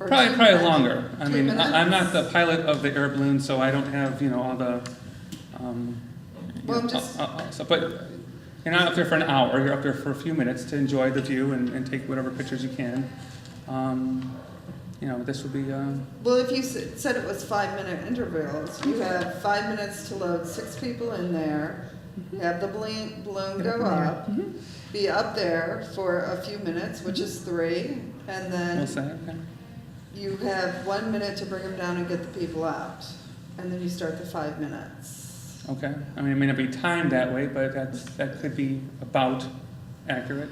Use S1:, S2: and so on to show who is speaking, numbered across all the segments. S1: or?
S2: Probably, probably longer. I mean,
S1: Two
S2: I- I'm not the pilot of the air balloon, so I don't have, you know, all the, um. you
S1: Well, I'm
S2: know,
S1: just-
S2: uh, uh, so- But you're not up there for an hour, you're up there for a few minutes to enjoy the view and, and take whatever pictures you can. Um, you know, this would be, uh,
S1: Well, if you s- said it was five-minute intervals, you have five minutes to load six people in there, have the balloon, balloon go up,
S2: Mm-hmm.
S1: be up there for a few minutes, which is three, and
S2: we'll
S1: then
S2: say, okay.
S1: you have one minute to bring them down and get the people out, and then you start the five minutes.
S2: Okay, I mean, it may not be timed that way, but that's, that could be about accurate.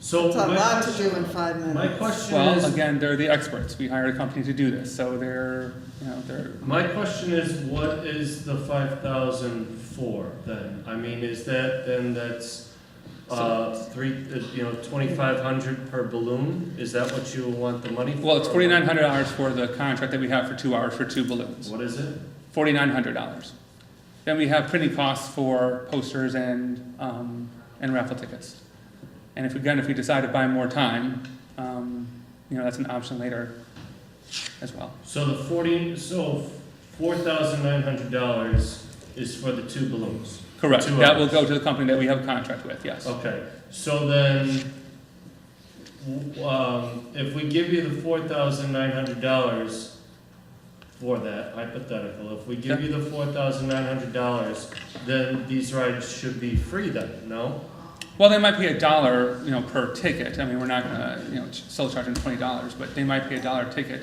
S3: So
S1: It's a
S3: my
S1: lot to do in
S3: question,
S1: five
S3: my
S1: minutes.
S3: question
S2: Well,
S3: is,
S2: again, they're the experts, we hired a company to do this, so they're, you know, they're,
S3: my question is, what is the five thousand for then? I mean, is that, then that's, uh, three, uh, you know, twenty-five hundred per balloon? Is that what you want the money for?
S2: well, it's
S3: or-
S2: forty-nine hundred dollars for the contract that we have for two hours for two balloons.
S3: What is it?
S2: Forty-nine hundred dollars. Then we have printing costs for posters and, um, and raffle tickets. And if, we again, if we decide to buy more time, um, you know, that's an option later as well.
S3: So the forty, so four thousand nine hundred dollars is for the two balloons?
S2: Correct,
S3: Two
S2: that will
S3: hours. Oh.
S2: go to the company that we have a contract with, yes.
S3: Okay, so then, w- um, if we give you the four thousand nine hundred dollars for that hypothetical, if we give you the four thousand nine hundred dollars, then these rides should be free then, no?
S2: Well, they might pay a dollar, you know, per ticket. I mean, we're not gonna, you know, ch- still charging twenty dollars, but they might pay a dollar a ticket.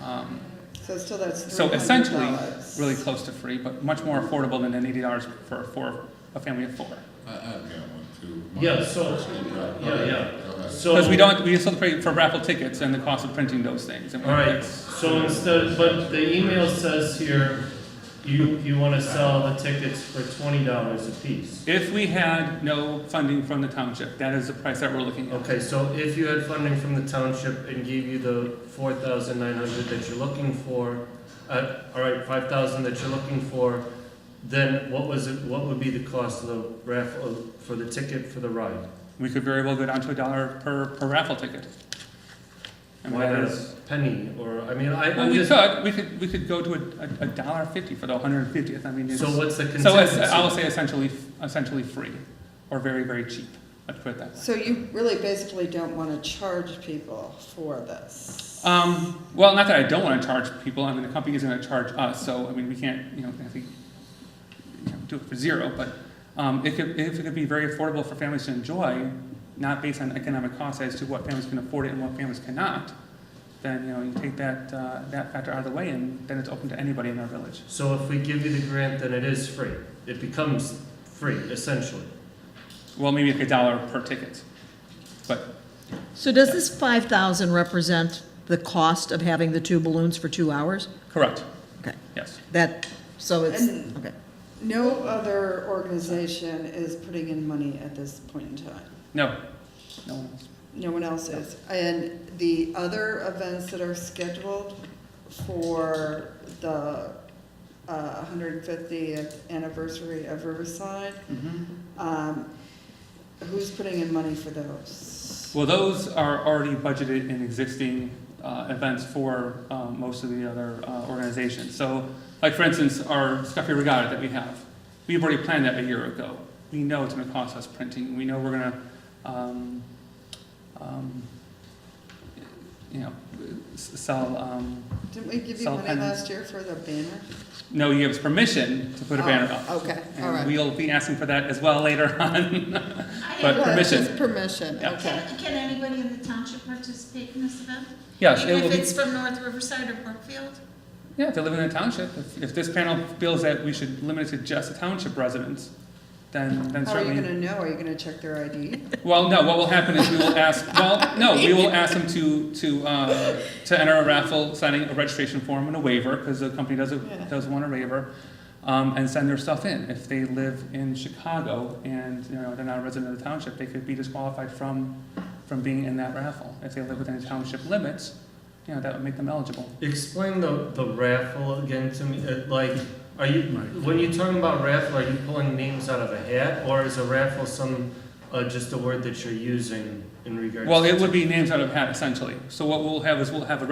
S2: Um,
S1: So still that's three
S2: so
S1: hundred
S2: essentially, really close to free, but much more affordable than the eighty dollars for for a family of four.
S4: I, I've got one too.
S3: Yeah, so- yeah, yeah. So.
S2: Because we don't, we still pay for raffle tickets and the cost of printing those things. I mean,
S3: All right,
S2: that's-
S3: so instead, but the email says here, you, you wanna sell the tickets for twenty dollars apiece.
S2: If we had no funding from the township, that is the price that we're looking at.
S3: Okay, so if you had funding from the township and gave you the four thousand nine hundred that you're looking for, uh, all right, five thousand that you're looking for, then what was it, what would be the cost of the raffle, for the ticket for the ride?
S2: We could very well go down to a dollar per per raffle ticket. I mean,
S3: Why
S2: that
S3: not
S2: is-
S3: a penny, or, I mean, I,
S2: Well,
S3: I'm
S2: we
S3: just,
S2: could, we could, we could go to a, a- a dollar fifty for the hundred and fiftieth, I mean, it's.
S3: so what's the
S2: So it's,
S3: contingency?
S2: I will say essentially, essentially free, or very, very cheap, let's put it that way.
S1: So you really basically don't wanna charge people for this.
S2: Um, well, not that I don't wanna charge people, I mean, the company is gonna charge us, so, I mean, we can't, you know, I think, you know, do it for zero, but, um, it could, if it could be very affordable for families to enjoy, not based on economic costs as to what families can afford it and what families cannot, then, you know, you take that, uh, that factor out of the way, and then it's open to anybody in our village.
S3: So if we give you the grant, then it is free, it becomes free, essentially.
S2: Well, maybe like a dollar per ticket, but
S5: So does this five thousand represent the cost of having the two balloons for two hours?
S2: correct,
S5: Okay,
S2: yes.
S5: that, so it's,
S1: And-
S5: okay.
S1: No other organization is putting in money at this point in time.
S2: No, no one else.
S1: No one else is. And the other events that are scheduled for the uh, 150th anniversary of Riverside,
S2: Mm-hmm.
S1: um, who's putting in money for those?
S2: Well, those are already budgeted in existing uh, events for um, most of the other uh, organizations. So, like for instance, our Scuffy Regatta that we have, we've already planned that a year ago. We know it's going to cost us printing. We know we're going to, um, um, you know, s- sell. Um,
S1: Didn't we give you
S2: Sell
S1: money
S2: pens.
S1: last year for the banner?
S2: no, you give us permission to put a
S1: Oh,
S2: banner up.
S1: Okay,
S2: And
S1: all right.
S2: we'll be asking for that as well later on. but
S1: Well, it's
S2: permission.
S1: just Permission,
S2: Yeah.
S1: okay.
S6: Can, can anybody in the township participate in this event?
S2: yes, it
S6: Even
S2: will
S6: if
S2: be.
S6: it's from North Riverside or Brookfield?
S2: Yeah, if they live in a township, if, if this panel feels that we should limit it to just the township residents, then, then
S1: How are you
S2: certainly.
S1: gonna know? Are you gonna check their ID?
S2: Well, no, what will happen is we will ask, well, no, we will ask them to, to, uh, to enter a raffle, signing a registration form and a waiver, because the company does, a-
S1: Yeah.
S2: does want a waiver, um, and send their stuff in. If they live in Chicago and, you know, they're not a resident of the township, they could be disqualified from, from being in that raffle. If they live within the township limits, you know, that would make them eligible.
S3: Explain the, the raffle again to me, uh, like, are you, when you're talking about raffle, are you pulling names out of a hat? Or is a raffle some, uh, just a word that you're using in regards to?
S2: Well, it would be names out of hat essentially. So what we'll have is we'll have a